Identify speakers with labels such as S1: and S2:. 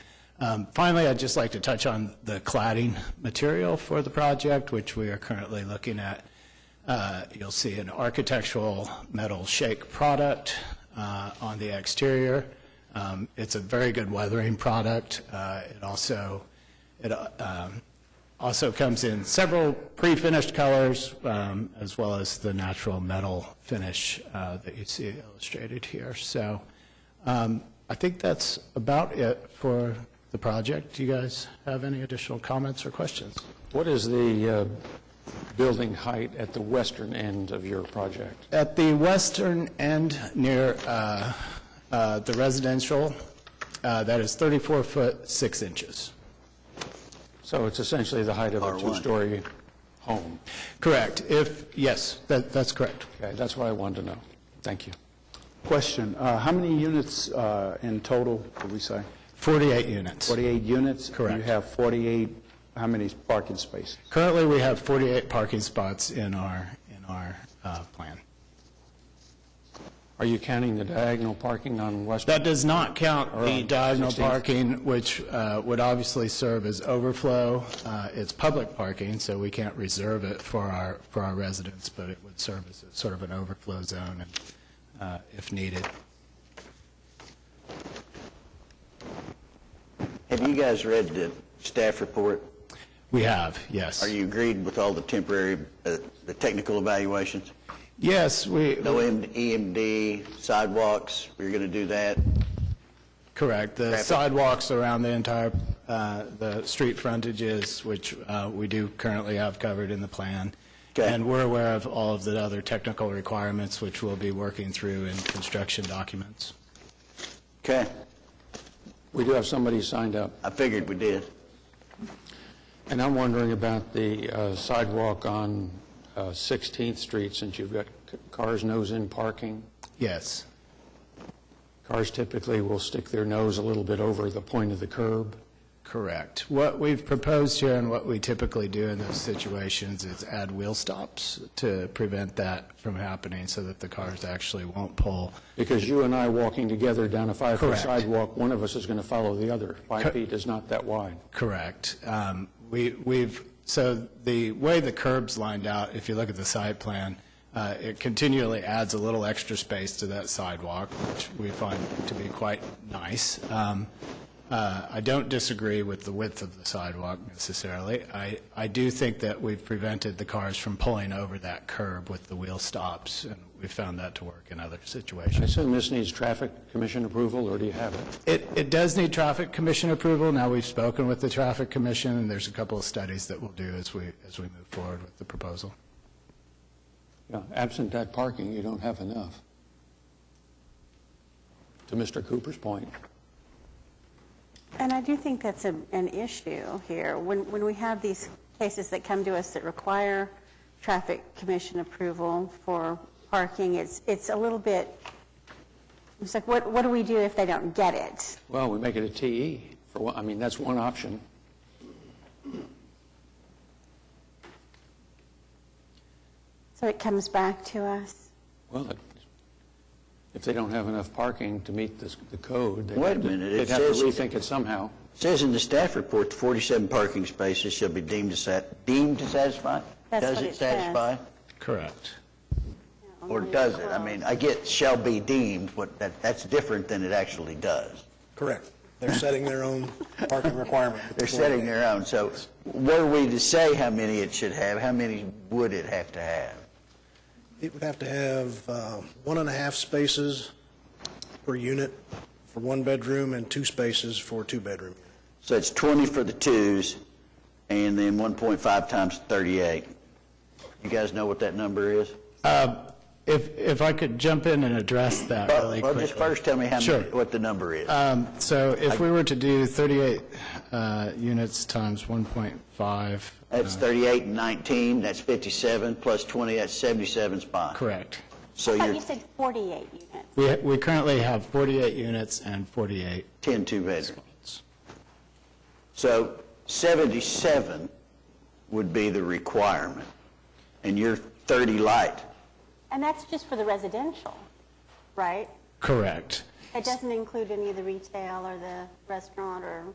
S1: Um, Finally, I'd just like to touch on the cladding material for the project, which we are currently looking at. Uh, You'll see an architectural metal shake product uh, on the exterior. Um, It's a very good weathering product. Uh, It also, it uh, um, also comes in several pre-finished colors, um, as well as the natural metal finish uh, that you see illustrated here. So um, I think that's about it for the project. Do you guys have any additional comments or questions?
S2: What is the uh, building height at the western end of your project?
S1: At the western end near uh, uh, the residential, uh, that is 34 foot 6 inches.
S2: So it's essentially the height of a two-story home.
S1: Correct. If, yes, that- that's correct.
S2: Okay, that's what I wanted to know. Thank you.
S3: Question, uh, how many units uh, in total, did we say?
S1: 48 units.
S3: 48 units?
S1: Correct.
S3: You have 48, how many parking spaces?
S1: Currently, we have 48 parking spots in our, in our uh, plan.
S2: Are you counting the diagonal parking on western?
S1: That does not count the
S2: Around
S1: diagonal
S2: 16.
S1: parking, which uh, would obviously serve as overflow. Uh, It's public parking, so we can't reserve it for our, for our residents, but it would serve as sort of an overflow zone uh, if needed.
S4: Have you guys read the staff report?
S1: We have, yes.
S4: Are you agreed with all the temporary, uh, the technical evaluations?
S1: Yes, we,
S4: No
S5: Mm-hmm.
S4: M- EMD, sidewalks, we're going to do that?
S1: correct. The
S4: Traffic.
S1: sidewalks around the entire, uh, the street frontages, which uh, we do currently have covered in the plan.
S4: Okay.
S1: And we're aware of all of the other technical requirements, which we'll be working through in construction documents.
S4: Okay,
S2: We do have somebody signed up.
S4: I figured we did.
S2: And I'm wondering about the uh, sidewalk on uh, 16th Street, since you've got c- cars nose-in parking.
S1: Yes.
S2: Cars typically will stick their nose a little bit over the point of the curb.
S1: Correct. What we've proposed here and what we typically do in those situations is add wheel stops to prevent that from happening so that the cars actually won't pull.
S2: Because you and I walking together down a five-foot
S1: Correct.
S2: sidewalk, one of us is going to follow the other.
S1: Co-
S2: Five feet is not that wide.
S1: Correct. Um, we, we've, so the way the curb's lined out, if you look at the site plan, uh, it continually adds a little extra space to that sidewalk, which we find to be quite nice. Um, uh, I don't disagree with the width of the sidewalk necessarily. I, I do think that we've prevented the cars from pulling over that curb with the wheel stops, and we found that to work in other
S2: I
S1: situations.
S2: assume this needs traffic commission approval, or do you have it?
S1: It, it does need traffic commission approval. Now, we've spoken with the traffic commission, and there's a couple of studies that we'll do as we, as we move forward with the proposal.
S2: Yeah, Absent that parking, you don't have enough. To Mr. Cooper's point,
S5: And I do think that's a- an issue here. When when we have these cases that come to us that require traffic commission approval for parking, it's it's a little bit, it's like, what what do we do if they don't get it?
S2: well, we make it a TE, for one, I mean, that's one option.
S5: So it comes back to us?
S2: Well, it- if they don't have enough parking to meet this- the code, they'd
S4: Wait a
S2: have to-
S4: minute, it
S2: they'd have to
S4: says-
S2: rethink it somehow.
S4: It Says in the staff report, the 47 parking spaces shall be deemed to sat, deemed to satisfy?
S5: That's what
S4: Does
S5: it
S4: it
S5: says.
S4: satisfy?
S1: Correct.
S4: Or does it? I mean, I get shall be deemed, but that, that's different than it actually does.
S6: Correct. They're setting their own parking requirement.
S4: They're setting their own, so were we to say how many it should have, how many would it have to have?
S6: It would have to have uh, one and a half spaces per unit for one bedroom and two spaces for two bedroom.
S4: So it's 20 for the twos, and then 1.5 times 38. You guys know what that number is?
S1: Um, If, if I could jump in and address that really
S4: Well,
S1: quickly.
S4: just first tell me how
S1: Sure.
S4: many, what the number is.
S1: Um, So if we were to do 38 uh, units times 1.5.
S4: That's 38 and 19, that's 57, plus 20, that's 77 spots.
S1: Correct.
S4: So
S5: I thought you
S4: you're
S5: said 48 units.
S1: We, we currently have 48 units and 48
S4: 10 two-bedrooms.
S1: spots.
S4: So 77 would be the requirement, and you're 30 light.
S5: And that's just for the residential, right?
S1: Correct.
S5: It doesn't include any of the retail or the restaurant or